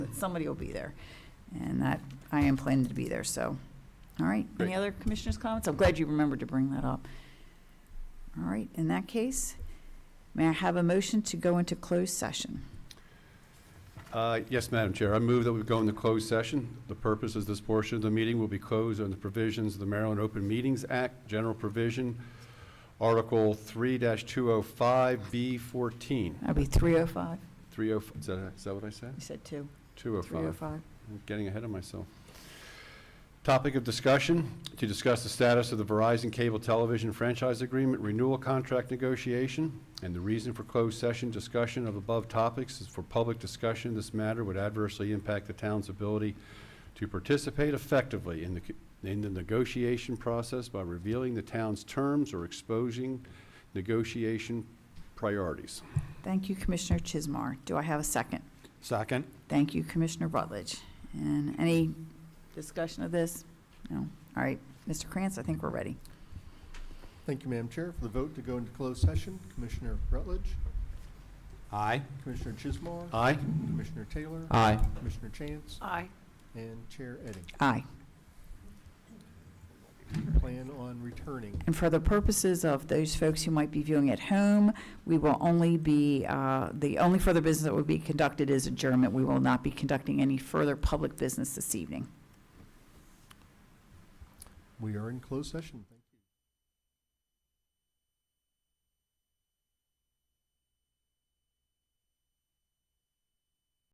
but somebody will be there. And that, I am planning to be there, so. All right, any Great. other commissioners' comments? I'm glad you remembered to bring that up. All right, in that case, may I have a motion to go into closed session? Uh, Yes, Madam Chair, I move that we go into closed session. The purpose of this portion of the meeting will be closed under the provisions of the Maryland Open Meetings Act, General Provision, Article 3-205B14. That'd be 305. 305, oh, is that- is that what I said? You said two. 205. 305. I'm Getting ahead of myself. Topic of discussion, to discuss the status of the Verizon Cable Television Franchise Agreement Renewal Contract Negotiation, and the reason for closed session discussion of above topics is for public discussion. This matter would adversely impact the town's ability to participate effectively in the, co- in the negotiation process by revealing the town's terms or exposing negotiation priorities. Thank you, Commissioner Chismar. Do I have a second? Second. Thank you, Commissioner Rutledge. And any discussion of this? No? All right, Mr. Krantz, I think we're ready. Thank you, Madam Chair. For the vote to go into closed session, Commissioner Rutledge, Aye. Commissioner Chismar, Aye? Commissioner Taylor, Aye. Commissioner Chance, Aye. and Chair Edding. Aye. Plan on returning And for the purposes of those folks who might be viewing at home, we will only be, uh, the only further business that will be conducted is adjournment. We will not be conducting any further public business this evening. We are in closed session. Thank you.